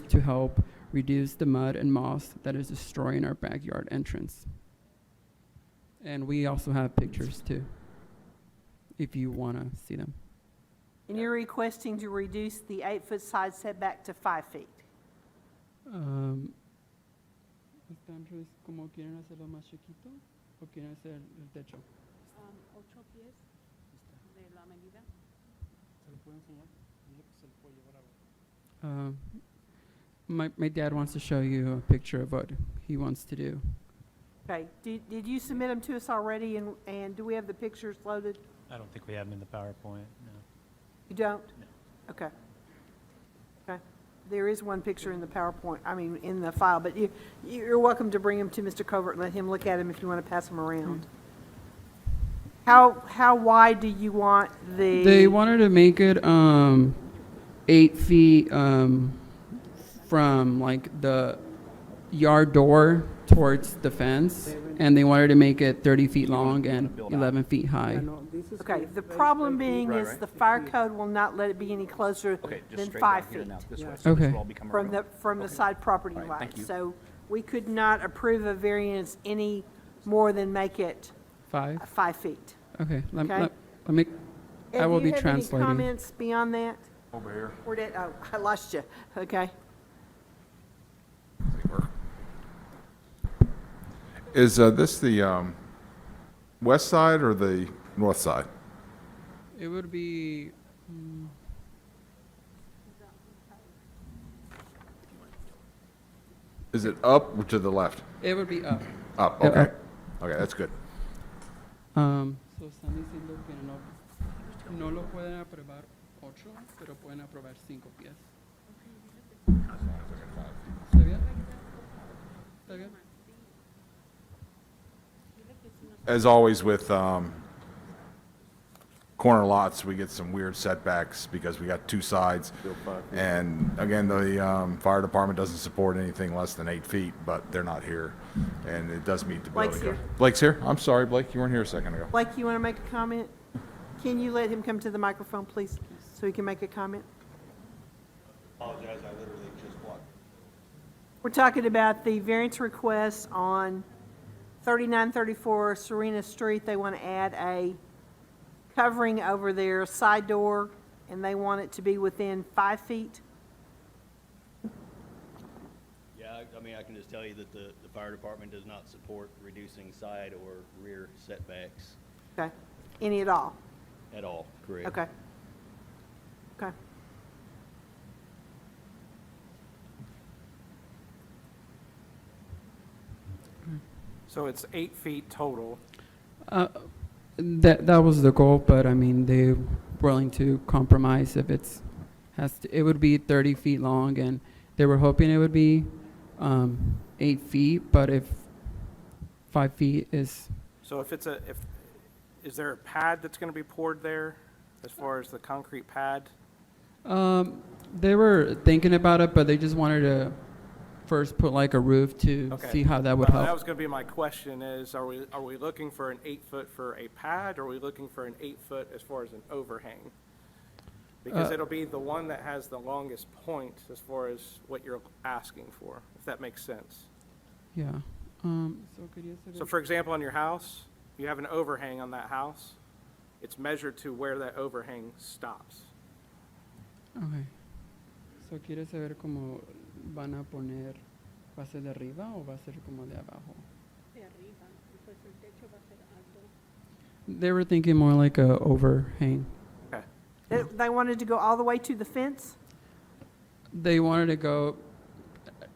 to help reduce the mud and moss that is destroying our backyard entrance. And we also have pictures too, if you want to see them. And you're requesting to reduce the eight-foot side setback to five feet. Um, ¿Están res- como quieren hacerlo más chiquito o quieren hacer el techo? Um, my, my dad wants to show you a picture of what he wants to do. Okay, did, did you submit them to us already, and, and do we have the pictures loaded? I don't think we have them in the PowerPoint, no. You don't? No. Okay. Okay, there is one picture in the PowerPoint, I mean, in the file, but you, you're welcome to bring them to Mr. Covert and let him look at them if you want to pass them around. Hmm. How, how wide do you want the? They wanted to make it um, eight feet um, from like the yard door towards the fence, and they wanted to make it 30 feet long and 11 feet high. Okay, the problem being Right, is right. the fire code will not let it be any closer Okay, just than straight down five here feet now, this way, so this Okay. will all become a from the, road. from the side property All right, line. thank you. So we could not approve a variance any more than make it Five? five feet. Okay. Let, Okay. let, let me. I will be Do you have any translating. comments beyond that? Over here. Or did, oh, I lost you, okay. Is uh, this the um, west side or the north side? It would be. mm, Is it up or to the left? It would be up. Up, Yeah, okay. Okay, that's good. Um, so están diciendo que no, no lo pueden aprobar ocho, pero pueden aprobar cinco pies. ¿Está bien? ¿Está bien? As always with um, corner lots, we get some weird setbacks because we got two sides. And again, the um, fire department doesn't support anything less than eight feet, but they're not here. And it does meet the building. Blake's code. here. Blake's here? I'm sorry, Blake, you weren't here a second ago. Blake, you want to make a comment? Can you let him come to the microphone, please, so he can make a comment? Apologize, I literally just walked. We're talking about the variance request on 3934 Serena Street. They want to add a covering over their side door, and they want it to be within five feet. Yeah, I- I mean, I can just tell you that the, the fire department does not support reducing side or rear setbacks Okay, any at all? at all, correct? Okay. Okay. So it's eight feet total. Uh, That, that was the goal, but I mean, they're willing to compromise if it's, has to, it would be thirty feet long and they were hoping it would be, um, eight feet, but if five feet is, So if it's a, if, is there a pad that's going to be poured there as far as the concrete pad? um, they were thinking about it, but they just wanted to first put like a roof to Okay. see how that would Uh, help. That was going to be my question is, are we, are we looking for an eight foot for a pad? Or are we looking for an eight foot as far as an overhang? Because Uh, it'll be the one that has the longest point as far as what you're asking for, if that makes sense. Yeah. Um, so quería So saber- for example, on your house, you have an overhang on that house. It's measured to where that overhang stops. okay. So quiere saber cómo van a poner, va a ser de arriba o va a ser como de abajo? They were thinking more like a overhang. Okay. They- They wanted to go all the way to the fence? They wanted to go,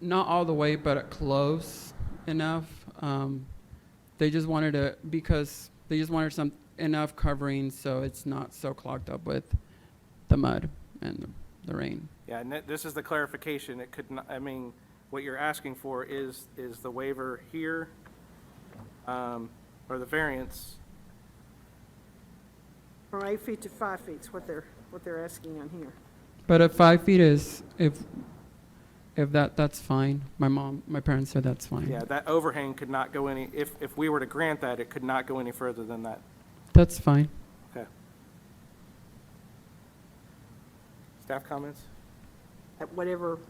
not all the way, but close enough. Um, they just wanted to, because they just wanted some, enough covering so it's not so clogged up with the mud and the rain. Yeah, and that- this is the clarification. It could not, I mean, what you're asking for is, is the waiver here, um, or the variance. From eight feet to five feet is what they're, what they're asking on here. But if five feet is, if, if that, that's fine. My mom, my parents said that's fine. Yeah, that overhang could not go any, if, if we were to grant that, it could not go any further than that. That's fine. Okay. Staff comments? At whatever